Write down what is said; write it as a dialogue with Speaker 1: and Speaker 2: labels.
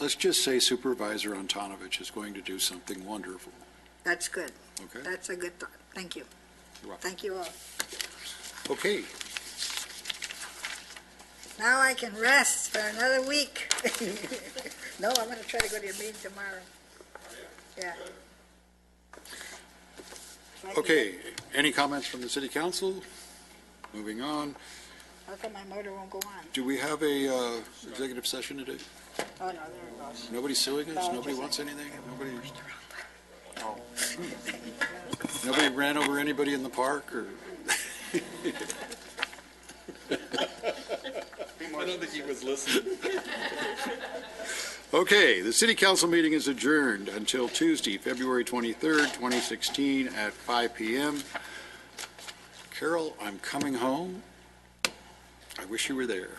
Speaker 1: let's just say Supervisor Antonovich is going to do something wonderful,
Speaker 2: That's good.
Speaker 1: okay?
Speaker 2: That's a good thought. Thank you.
Speaker 1: You're welcome.
Speaker 2: Thank you all.
Speaker 1: Okay,
Speaker 2: Now I can rest for another week. No, I'm going to try to go to your meeting tomorrow. Yeah.
Speaker 1: okay. Any comments from the city council? Moving on,
Speaker 2: How come my motor won't go on?
Speaker 1: do we have a uh, executive session today?
Speaker 2: Oh, no, there it goes.
Speaker 1: Nobody's suing us? Nobody wants anything? Nobody? Nobody ran over anybody in the park or?
Speaker 3: I don't think he was listening.
Speaker 1: Okay, the city council meeting is adjourned until Tuesday, February 23rd, 2016 at 5 PM. Carol, I'm coming home. I wish you were there.